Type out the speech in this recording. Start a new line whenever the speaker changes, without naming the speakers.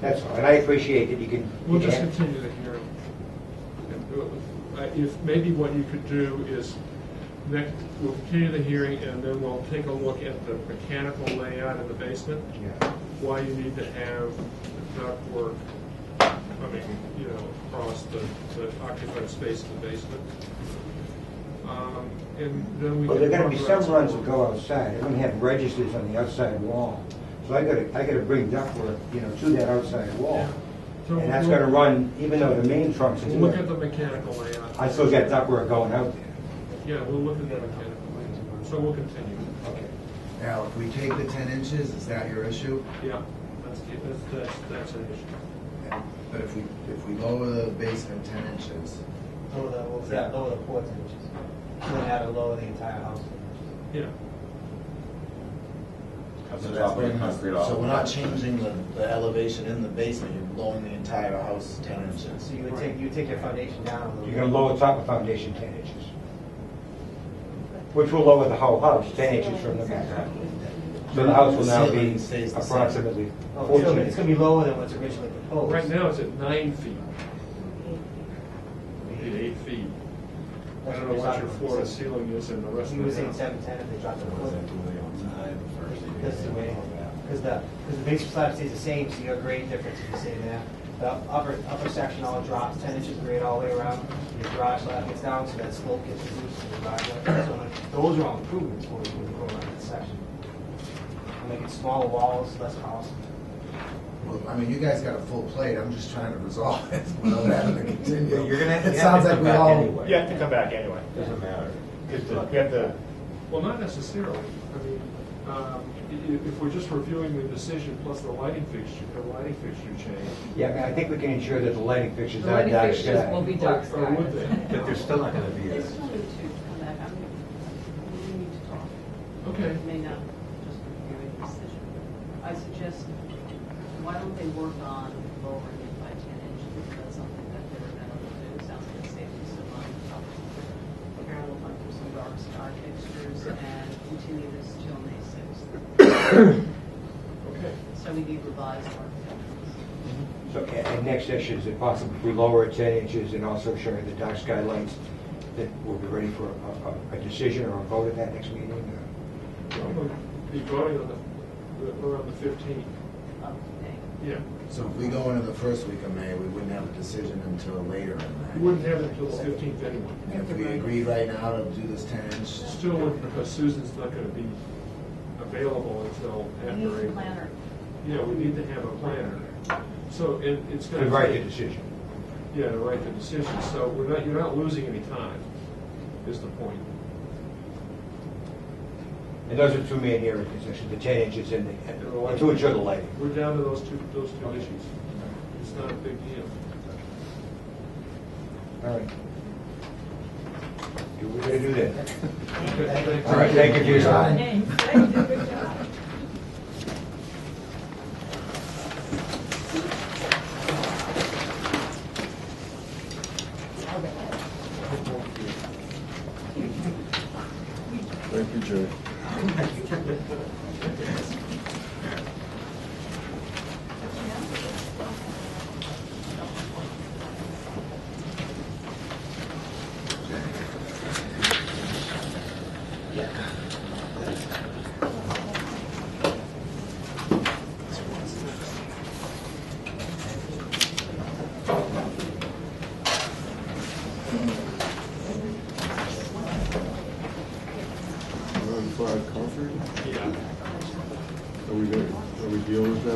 That's all, and I appreciate that you can.
We'll just
Yeah.
continue the hearing and do it with, uh, if, maybe what you could do is, next, we'll continue the hearing and then we'll take a look at the mechanical layout in the basement,
Yeah.
why you need to have the ductwork coming, you know, across the, the occupied space in the basement. Um, And then we.
Well, there are
can
gonna be
talk
some
about-
runs that go outside, they're gonna have registers on the outside wall. So I gotta, I gotta bring ductwork, you know, to that outside wall.
Yeah. So
And that's
we'll-
gonna run, even though the main trunk's
We'll look at the
here,
mechanical layout.
I still got ductwork going out there.
Yeah, we'll look at the mechanical layout, so we'll continue.
Okay.
Now, if we take the ten inches, is that your issue?
Yeah, that's, that's, that's, that's an issue.
But if we, if we lower the basement ten inches,
Lower the, what was that,
Yeah.
lower the porch inches. You would have to lower the entire house.
Yeah,
inches.
Cuts the top of the concrete off.
So we're not changing the, the elevation in the basement, you're blowing the entire house ten inches.
So you would take, you would take your foundation down a little bit.
You're gonna lower top of foundation ten inches. Which will lower the whole house ten inches from the ground. So the house will now be
Ceiling stays the same.
approximately
Oh, it's
fourteen.
gonna be- It's gonna be lower than what's originally proposed.
right now it's at nine feet. We need eight feet. I don't know what your floor to ceiling is in the rest
He was saying
of the house.
seven ten if they dropped the
Was
porch.
that the way on high, the first thing?
That's the way, because the, because the basement slab stays the same, so your grade difference is the same there. The upper, upper section all drops ten inches grade all the way around, your garage slab gets down, so that slope gets reduced to the garage. slab. So like, Those are all improvements when you when you go around that section. Making smaller walls, less house.
well, I mean, you guys got a full plate, I'm just trying to resolve it without having to continue.
You're gonna have to-
It
you have
sounds
to
like
come
we
back
all,
anyway.
You have to come back anyway.
Doesn't matter.
Because the- you have to,
Well, not necessarily. I mean, um, i- i- if we're just reviewing the decision plus the lighting fixture, the lighting fixture change.
Yeah, I mean, I think we can ensure that the lighting fixtures
The
are
lighting
dark
fixtures will be
sky.
dark
Or- or
sky.
would they?
but they're still not gonna be
They
as,
still need to come back, I mean, we need to talk.
Okay,
It may not just be a decision. I suggest, why don't they work on lowering it by ten inches? That's something that they're amenable to, sounds like a safety solution. Karen will hunt for some dark sky fixtures and continue this till May sixth.
okay.
So we need revised architectures.
So, a- and next session, is it possible if we lower it ten inches and also showing the dark sky lights, that we'll be ready for a, a, a decision or a vote at that next meeting? or-
So I'm gonna be voting on the- the, around the fifteenth.
up to date.
Yeah,
so if we go into the first week of May, we wouldn't have a decision until later in May.
you wouldn't have it until the fifteenth anyway.
And If we agree right now to do this ten inch,
Still, wouldn't because Susan's not gonna be available until
We
after
need
April.
a planner.
Yeah, we need to have a planner. So it, it's gonna.
To write the
take-
decision.
Yeah, to write the decision, so we're not, you're not losing any time, is the point.
And those are two main areas, actually, the ten inches and the, and
And the lighting.
to ensure the lighting.
We're down to those two, those two issues. It's not a big deal.
All right. Do we gonna do that?
Okay,
All right, thank you for your time.
Thank you, Jerry. We're on fried coffee?
Yeah.
Are we gonna, are we dealing with that?